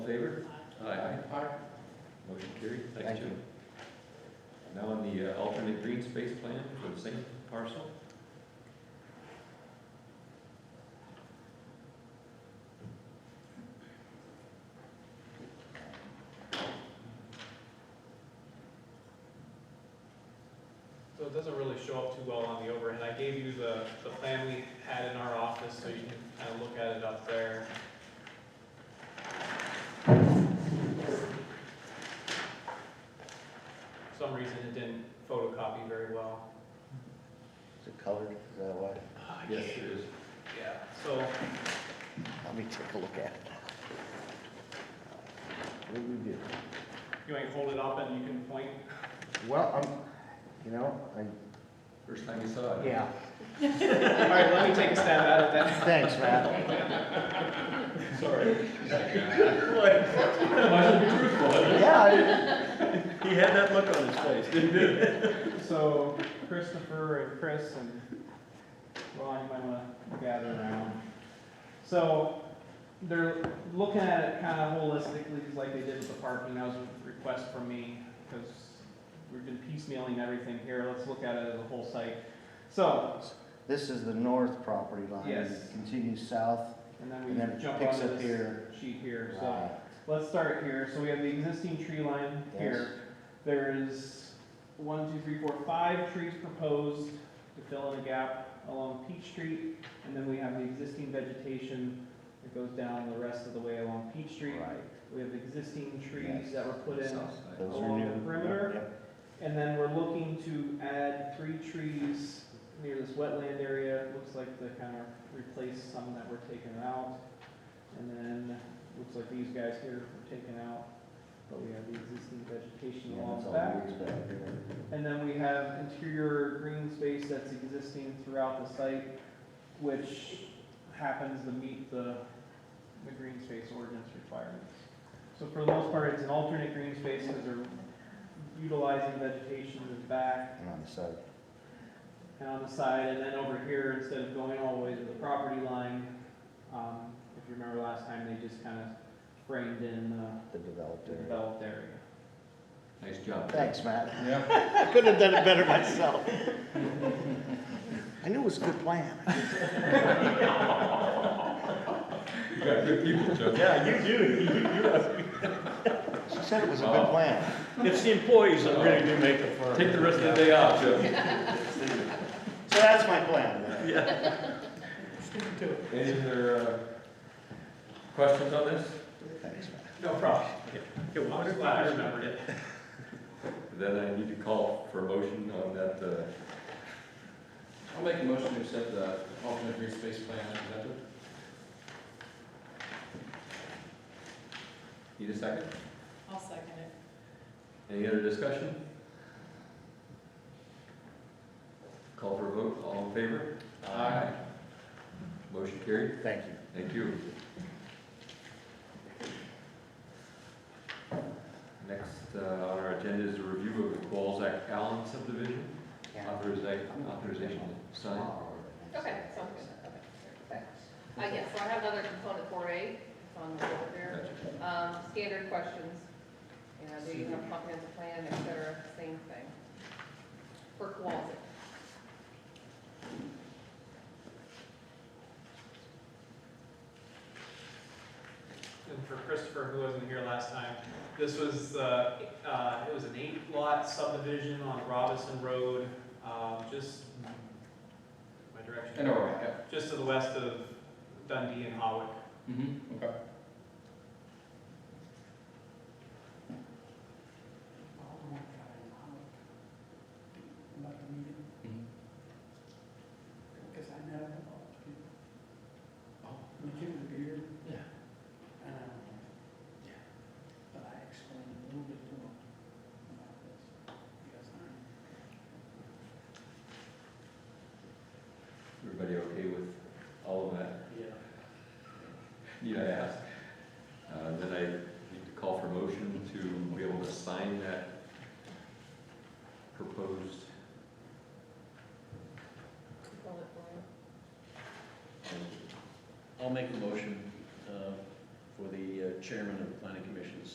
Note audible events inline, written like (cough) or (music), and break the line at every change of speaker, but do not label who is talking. Aye. Motion carried. Thanks,
Thank
Jim.
you.
Now on the uh, alternate green space plan for the same parcel.
So it doesn't really show up too well on the overhead. I gave you the, the plan we had in our office, so you can kind of look at it up there. For some reason, it didn't photocopy very well.
Is it colored, is that why?
Yes, it is.
Ah, Yeah, so
Let me take a look at it. What do we do?
you want to hold it up and you can point?
Well, I'm, you know, I,
First time you saw it.
yeah,
All right, let me take a stab at it then.
thanks, Matt.
Sorry. (laughs) Why should be truthful?
Yeah,
He had that look on his face, didn't he?
So Christopher and Chris and Ron, you might want to gather around. So they're looking at it kind of holistically, just like they did with the parking. That was a request from me because we've been piecemealing everything here. Let's look at it as a whole site. So,
this is the north property line.
Yes.
It Continues south
and then
and then
we
it
jump
picks
onto
up
this
here.
sheet here. So
Right.
let's start here. So we have the existing tree line
Yes.
here. There is one, two, three, four, five trees proposed to fill in a gap along Peach Street. And then we have the existing vegetation that goes down the rest of the way along Peach Street.
Right.
We have existing trees
Yes.
that were put in.
South side.
Those are
Along
new.
the perimeter.
Yep,
And then we're looking to add three trees near this wetland area. It Looks like to kind of replace some that were taken out. And then, looks like these guys here were taken out, but we have the existing vegetation
Yeah, that's
along the
all
back.
yours back there.
And then we have interior green space that's existing throughout the site, which happens to meet the, the green space ordinance requirements. So for the most part, it's an alternate green space because they're utilizing vegetation in the back
And on the side.
and on the side. And then over here, instead of going all the way to the property line, um, if you remember last time, they just kind of framed in uh,
the developed
the
area.
developed area.
Nice job.
Thanks, Matt.
Yeah.
(laughs) I couldn't have done it better myself. (laughs) I knew it was a good plan.
You got good people, Joe.
Yeah, you do, you, you,
She said it was a good plan.
it's the employees that really do make it for.
Take the rest of the day off, Joe.
So that's my plan. then.
Any other uh, questions on this?
Thanks, Matt.
No problem.
Yeah, well,
I'm glad I remembered it.
Then I need to call for a motion on that, uh,
I'll make a motion to accept the alternate green space plan as presented.
need a second?
I'll second it.
Any other discussion? Call for a vote, all in favor?
Aye.
Motion carried,
Thank you.
thank you. Next uh, on our agenda is a review of the Walzak Allen subdivision, authorization, authorization to sign.
Okay, sounds good, okay.
Thanks.
Uh, yes, so I have another component four A, it's on the board there.
Gotcha.
Um, standard questions, you know, do you have comprehensive plan, et cetera, same thing. For Kowalski.
And for Christopher, who wasn't here last time, this was, uh, uh, it was an eight lot subdivision on Robinson Road, um, just, my direction?
And over, yeah.
Just to the west of Dundee and Hawick.
Mm-hmm, okay.
about the meeting, because I know that all the people.
Oh.
We give the beer.
Yeah.
And I don't know. Yeah. But I explained a little bit to them about this, because I'm.
Everybody okay with all of that?
Yeah.
Need I ask? Uh, Then I need to call for motion to be able to sign that proposed
component four A.
I'll make a motion, uh, for the uh, chairman of the planning commission's